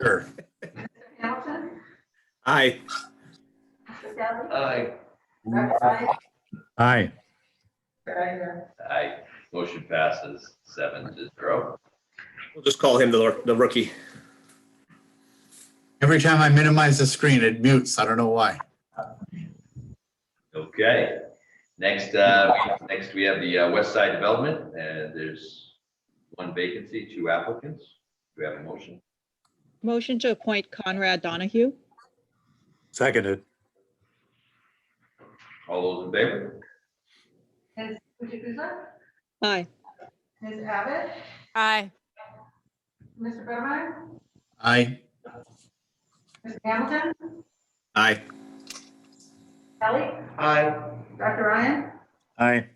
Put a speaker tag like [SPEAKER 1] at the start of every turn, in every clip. [SPEAKER 1] Sure.
[SPEAKER 2] Mr. Hamilton?
[SPEAKER 1] Aye.
[SPEAKER 2] Mr. Dudley?
[SPEAKER 3] Aye.
[SPEAKER 2] Dr. Smith?
[SPEAKER 1] Aye.
[SPEAKER 2] Mr.
[SPEAKER 3] Aye. Motion passes seven to zero.
[SPEAKER 4] We'll just call him the, the rookie.
[SPEAKER 1] Every time I minimize the screen, it mutes. I don't know why.
[SPEAKER 3] Okay. Next, uh, next we have the uh, West Side Development, and there's one vacancy, two applicants. Do we have a motion?
[SPEAKER 5] Motion to appoint Conrad Donahue.
[SPEAKER 1] Seconded.
[SPEAKER 3] All those in favor?
[SPEAKER 2] Ms. Jukusa?
[SPEAKER 5] Aye.
[SPEAKER 2] Ms. Abbott?
[SPEAKER 6] aye,
[SPEAKER 2] Mr. Buttermeyer?
[SPEAKER 1] Aye.
[SPEAKER 2] Mr. Hamilton?
[SPEAKER 1] Aye.
[SPEAKER 2] Kelly?
[SPEAKER 3] Aye.
[SPEAKER 2] Dr. Ryan?
[SPEAKER 1] Aye.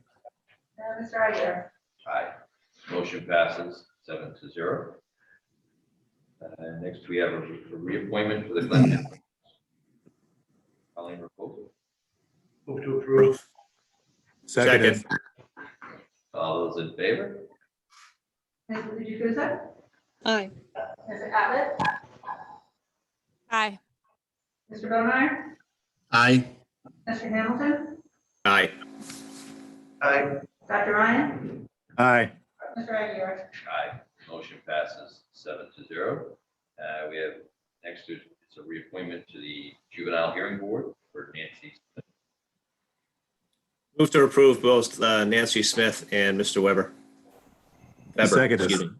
[SPEAKER 2] And Mr. Aguirre?
[SPEAKER 3] Aye. Motion passes seven to zero. Uh, Next, we have a re- a reappointment for the Glenn. Colleen Reposo.
[SPEAKER 7] Move to approve.
[SPEAKER 1] Seconded.
[SPEAKER 3] All those in favor?
[SPEAKER 2] Ms. Jukusa?
[SPEAKER 5] Aye.
[SPEAKER 2] Ms. Abbott?
[SPEAKER 6] aye,
[SPEAKER 2] Mr. Buttermeyer?
[SPEAKER 1] Aye.
[SPEAKER 2] Mr. Hamilton?
[SPEAKER 4] Aye.
[SPEAKER 3] Aye.
[SPEAKER 2] Dr. Ryan?
[SPEAKER 1] Aye.
[SPEAKER 2] Mr. Aguirre?
[SPEAKER 3] Aye. Motion passes seven to zero. Uh, We have next, is it's a reappointment to the Juvenile Hearing Board for Nancy.
[SPEAKER 4] Move to approve both uh, Nancy Smith and Mr. Weber. Weber,
[SPEAKER 1] Seconded.
[SPEAKER 4] excuse me.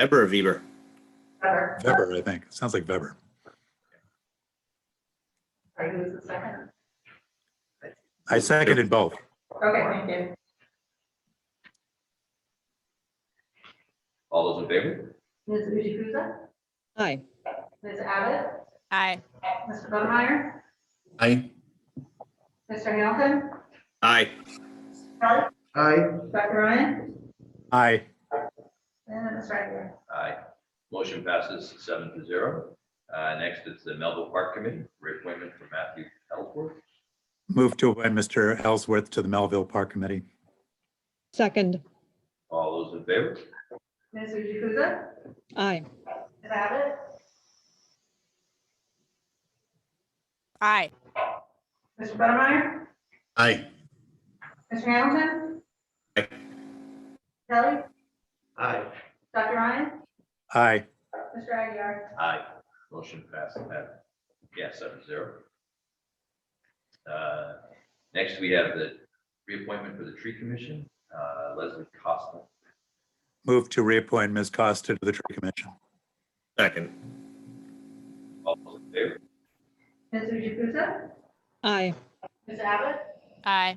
[SPEAKER 4] Weber or Weber?
[SPEAKER 2] Better.
[SPEAKER 1] Weber, I think. Sounds like Weber.
[SPEAKER 2] Sorry, who was the second?
[SPEAKER 1] I seconded both.
[SPEAKER 2] Okay, thank you.
[SPEAKER 3] All those in favor?
[SPEAKER 2] Ms. Jukusa?
[SPEAKER 5] Aye.
[SPEAKER 2] Ms. Abbott?
[SPEAKER 6] aye,
[SPEAKER 2] Mr. Buttermeyer?
[SPEAKER 1] Aye.
[SPEAKER 2] Mr. Hamilton?
[SPEAKER 4] Aye.
[SPEAKER 2] Kelly?
[SPEAKER 3] Aye.
[SPEAKER 2] Dr. Ryan?
[SPEAKER 1] Aye.
[SPEAKER 2] And Mr. Aguirre?
[SPEAKER 3] Aye. Motion passes seven to zero. Uh, Next is the Melville Park Committee, reappointment for Matthew Ellsworth.
[SPEAKER 1] Move to appoint Mr. Ellsworth to the Melville Park Committee.
[SPEAKER 5] Second.
[SPEAKER 3] All those in favor?
[SPEAKER 2] Ms. Jukusa?
[SPEAKER 5] Aye.
[SPEAKER 2] Ms. Abbott?
[SPEAKER 6] aye,
[SPEAKER 2] Mr. Buttermeyer?
[SPEAKER 1] Aye.
[SPEAKER 2] Mr. Hamilton?
[SPEAKER 4] Aye.
[SPEAKER 2] Kelly?
[SPEAKER 3] Aye.
[SPEAKER 2] Dr. Ryan?
[SPEAKER 1] Aye.
[SPEAKER 2] Mr. Aguirre?
[SPEAKER 3] Aye. Motion passes that, yeah, seven zero. Uh, Next, we have the reappointment for the Tree Commission, uh, Leslie Costa.
[SPEAKER 1] Move to reappoint Ms. Costa to the Tree Commission.
[SPEAKER 4] Second.
[SPEAKER 3] All those in favor?
[SPEAKER 2] Ms. Jukusa?
[SPEAKER 5] Aye.
[SPEAKER 2] Ms. Abbott?
[SPEAKER 6] aye,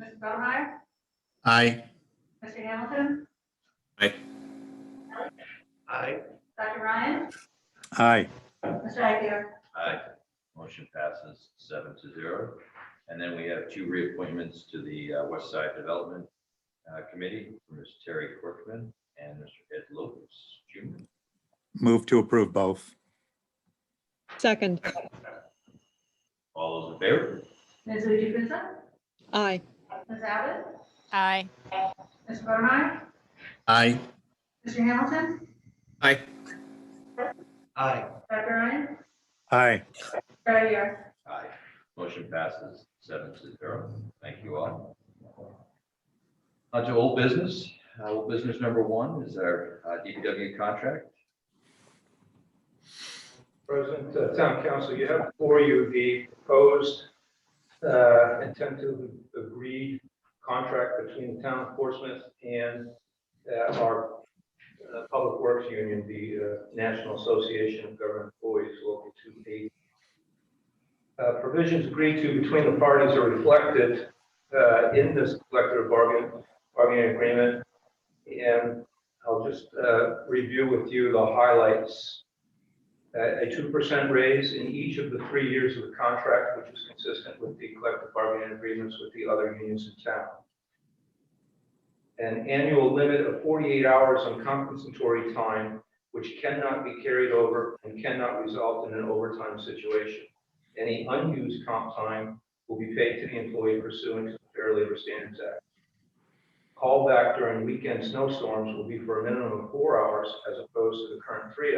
[SPEAKER 2] Mr. Buttermeyer?
[SPEAKER 1] Aye.
[SPEAKER 2] Mr. Hamilton?
[SPEAKER 4] Aye.
[SPEAKER 3] Aye.
[SPEAKER 2] Dr. Ryan?
[SPEAKER 1] Aye.
[SPEAKER 2] Mr. Aguirre?
[SPEAKER 3] Aye. Motion passes seven to zero. And then we have two reappointments to the uh, West Side Development uh, Committee, Ms. Terry Corkman and Mr. Ed Lopez Jr.
[SPEAKER 1] Move to approve both.
[SPEAKER 5] Second.
[SPEAKER 3] All those in favor?
[SPEAKER 2] Ms. Jukusa?
[SPEAKER 5] Aye.
[SPEAKER 2] Ms. Abbott?
[SPEAKER 6] aye,
[SPEAKER 2] Mr. Buttermeyer?
[SPEAKER 1] Aye.
[SPEAKER 2] Mr. Hamilton?
[SPEAKER 4] Aye.
[SPEAKER 3] Aye.
[SPEAKER 2] Dr. Ryan?
[SPEAKER 1] Aye.
[SPEAKER 2] Mr. Aguirre?
[SPEAKER 3] Aye. Motion passes seven to zero. Thank you all. On to old business. Uh, Old business number one is our uh, DPW contract.
[SPEAKER 7] President, uh, Town Council, you have before you the proposed uh, intent to agree contract between the town of Portsmouth and uh, our uh, Public Works Union, the uh, National Association of Government Employees, Local 280. Uh, Provisions agreed to between the parties are reflected uh, in this collective bargain, bargaining agreement. And I'll just uh, review with you the highlights a a 2% raise in each of the three years of the contract, which is consistent with the collective bargaining agreements with the other unions in town. An annual limit of 48 hours on compensatory time, which cannot be carried over and cannot result in an overtime situation. Any unused comp time will be paid to the employee pursuant to the Fair Labor Standards Act. Callback during weekend snowstorms will be for a minimum of four hours as opposed to the current three